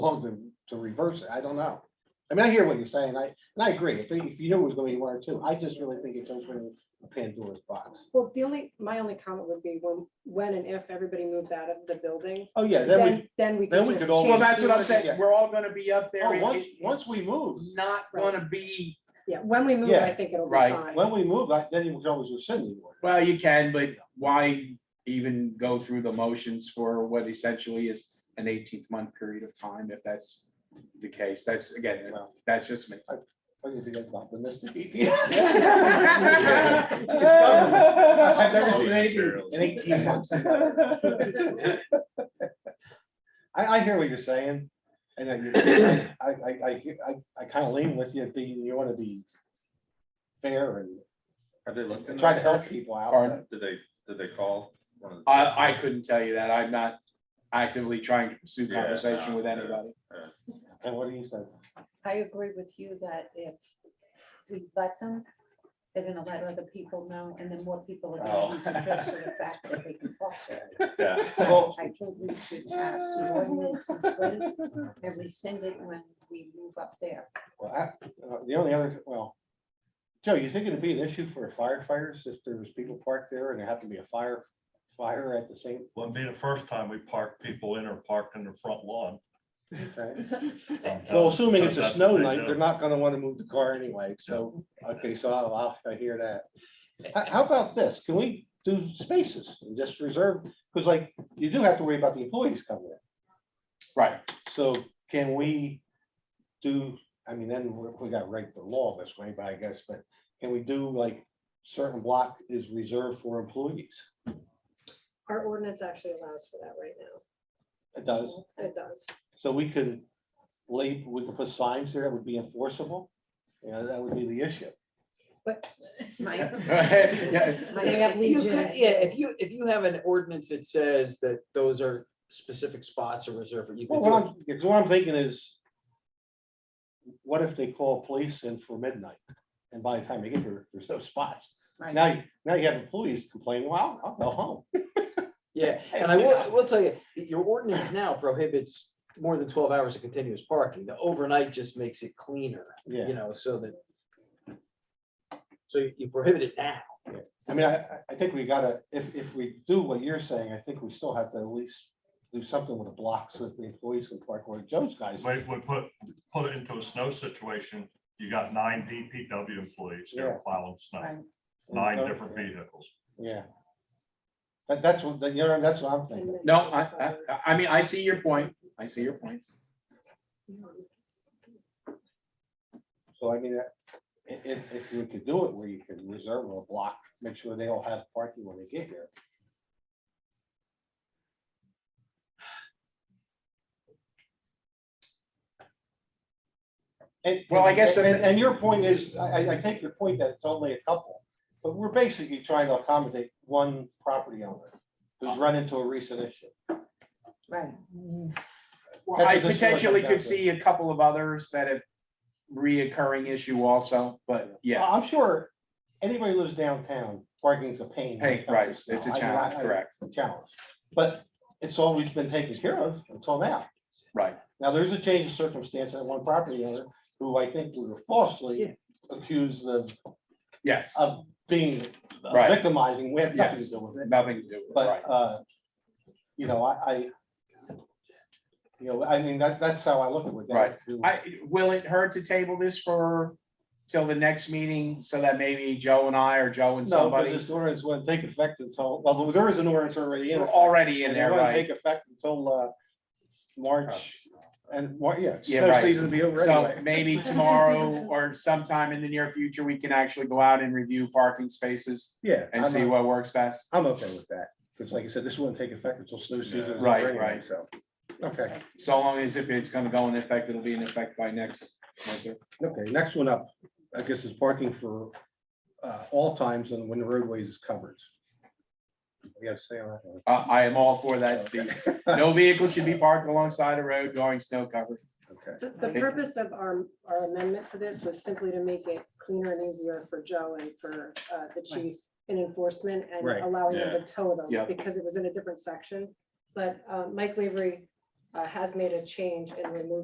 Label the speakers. Speaker 1: long to, to reverse it. I don't know. I mean, I hear what you're saying. I, and I agree. If, if you knew it was gonna be one or two, I just really think it's opening a Pandora's box.
Speaker 2: Well, the only, my only comment would be when, when and if everybody moves out of the building,
Speaker 1: Oh, yeah, then we,
Speaker 2: then, then we
Speaker 1: then
Speaker 2: can
Speaker 1: we
Speaker 2: just
Speaker 1: could all-
Speaker 2: change.
Speaker 3: Well, that's what I'm
Speaker 1: Yeah.
Speaker 3: saying. We're all gonna be up there.
Speaker 1: oh,
Speaker 3: It-
Speaker 1: once,
Speaker 3: it's
Speaker 1: once we move,
Speaker 3: Not gonna be,
Speaker 2: Yeah, when we move,
Speaker 1: Yeah.
Speaker 2: I think it'll be
Speaker 3: Right.
Speaker 2: fine.
Speaker 1: when we move, I- then you can always rescind the order.
Speaker 3: well, you can, but why even go through the motions for what essentially is an eighteenth month period of time if that's the case? That's again,
Speaker 1: Well,
Speaker 3: that's just me.
Speaker 1: I think that's optimistic. I've never seen anything in eighteen months. I, I hear what you're saying, and I, I, I, I, hear- I, I kind of lean with you, being, you want to be fair and
Speaker 4: Have they looked?
Speaker 1: and
Speaker 4: into
Speaker 1: try to
Speaker 4: that?
Speaker 1: help people out.
Speaker 3: Pardon?
Speaker 4: Did they, did they call? one of the-
Speaker 3: I, I couldn't tell you that. I'm not actively trying to pursue
Speaker 4: Yeah,
Speaker 3: conversation
Speaker 4: no,
Speaker 3: with
Speaker 4: yeah.
Speaker 3: anybody.
Speaker 1: And what do you say?
Speaker 5: I agree with you that if we let them, they're gonna let other people know, and then more people are
Speaker 4: Oh.
Speaker 5: gonna use it just for the fact that they can foster. it.
Speaker 4: Yeah.
Speaker 1: Well,
Speaker 5: I think we should have some ordinance in place and rescind it when we move up there.
Speaker 1: well, I- uh, the only other, well, Joe, you think it'd be an issue for firefighters if there was people parked there and there happened to be a fire, fire at the same
Speaker 6: Well, it'd be the first time we parked people in or parked in the front lawn.
Speaker 1: time?
Speaker 6: Um,
Speaker 1: Well, assuming it's a
Speaker 6: that's-
Speaker 1: snow
Speaker 6: that's what
Speaker 1: night,
Speaker 6: they
Speaker 1: they're
Speaker 6: do.
Speaker 1: not gonna wanna move the car anyway, so, okay, so I'll, I'll- I hear that. How, how about this? Can we do spaces and just reserve, because like, you do have to worry about the employees coming in.
Speaker 3: Right.
Speaker 1: So can we do, I mean, then we we gotta write the law this way, but I guess, but can we do like certain block is reserved for employees?
Speaker 2: Our ordinance actually allows for that right now.
Speaker 1: It does,
Speaker 2: It does.
Speaker 1: so we could leave, we could put signs there that would be enforceable. You know, that would be the issue.
Speaker 5: My-
Speaker 3: Yeah.
Speaker 5: my
Speaker 2: They have
Speaker 5: next-
Speaker 7: You could-
Speaker 2: Legion.
Speaker 7: Yeah, if you, if you have an ordinance that says that those are specific spots are reserved for you. could
Speaker 1: Well, what
Speaker 7: do
Speaker 1: I'm, because what I'm thinking is. What if they call police in for midnight? And by the time they get here, there's no spots.
Speaker 5: Right.
Speaker 1: Now, you- now you have employees complaining, well, I'll go home.
Speaker 7: it. Yeah, and I will, I will tell you, your ordinance now prohibits more than twelve hours of continuous parking. The overnight just makes it cleaner,
Speaker 1: Yeah,
Speaker 7: you know, so that. So you- you prohibit it now.
Speaker 1: I mean, I, I- I think we gotta, if, if we do what you're saying, I think we still have to at least do something with the blocks that the employees can park where Joe's guys.
Speaker 6: We, we put, put it into a snow situation. You got nine DPW employees
Speaker 1: Yeah.
Speaker 6: here plowing
Speaker 5: Right.
Speaker 6: snow, nine different vehicles.
Speaker 1: Yeah. That, that's what, that- you know, that's what I'm
Speaker 2: And
Speaker 1: thinking.
Speaker 2: then-
Speaker 3: No, I, I, I mean, I see your point. I see your points.
Speaker 1: So I mean, if, if, if we could do it where you can reserve a block, make sure they all have parking when they get here. And,
Speaker 3: Well, I guess-
Speaker 1: And, and your point is, I, I, I take your point that it's only a couple, but we're basically trying to accommodate one property owner who's run into a recent issue.
Speaker 5: Right.
Speaker 3: Well, I
Speaker 1: That's what this looks
Speaker 3: potentially
Speaker 1: like,
Speaker 3: could
Speaker 1: that's it.
Speaker 3: see a couple of others that have reoccurring issue also, but yeah,
Speaker 1: I'm sure anybody who lives downtown, parking's a pain. when it
Speaker 3: hey,
Speaker 1: comes to
Speaker 3: right,
Speaker 1: snow.
Speaker 3: it's a
Speaker 1: I- I-
Speaker 3: challenge,
Speaker 1: I-
Speaker 3: correct,
Speaker 1: a challenge. But it's always been taken care of until now.
Speaker 3: right.
Speaker 1: Now, there's a change of circumstance at one property owner who I think was falsely accused of,
Speaker 3: Yes,
Speaker 1: of being
Speaker 3: Right.
Speaker 1: victimizing. We have nothing to
Speaker 3: Yes.
Speaker 1: do with it.
Speaker 3: nothing to do with it, right.
Speaker 1: But, uh, you know, I, I, you know, I mean, that, that's how I look at it. That has to do with-
Speaker 3: I, will it hurt to table this for till the next meeting so that maybe Joe and I or Joe and
Speaker 1: No, but
Speaker 3: somebody
Speaker 1: this ordinance wouldn't take effect until, well, there is an ordinance already in.
Speaker 3: are
Speaker 1: effect,
Speaker 3: already in
Speaker 1: and it
Speaker 3: there,
Speaker 1: wouldn't
Speaker 3: right?
Speaker 1: Take effect until, uh, March and, Mar- yeah.
Speaker 3: Yeah,
Speaker 1: snow
Speaker 3: right.
Speaker 1: Season will be over
Speaker 3: So
Speaker 1: anyway.
Speaker 3: maybe tomorrow or sometime in the near future, we can actually go out and review parking spaces
Speaker 1: Yeah.
Speaker 3: and
Speaker 1: I'm
Speaker 3: see
Speaker 1: not-
Speaker 3: what works best.
Speaker 1: I'm okay with that, because like I said, this wouldn't take effect until snow season. is over
Speaker 3: Right,
Speaker 1: anyway,
Speaker 3: right.
Speaker 1: So, okay,
Speaker 3: So long as if it's gonna go in effect, it'll be in effect by next winter.
Speaker 1: okay, next one up, I guess is parking for uh, all times and when the roadways is covered. We gotta say on that one.
Speaker 3: Uh, I am all for that. The- No vehicle should be parked alongside a road during snow cover.
Speaker 1: Okay,
Speaker 2: The, the purpose of our, our amendment to this was simply to make it cleaner and easier for Joe and for, uh, the chief in enforcement and
Speaker 1: Right,
Speaker 2: allowing them to tow them.
Speaker 3: Yeah.
Speaker 2: Because it was in a different section, but, uh, Mike Lavery uh, has made a change in removing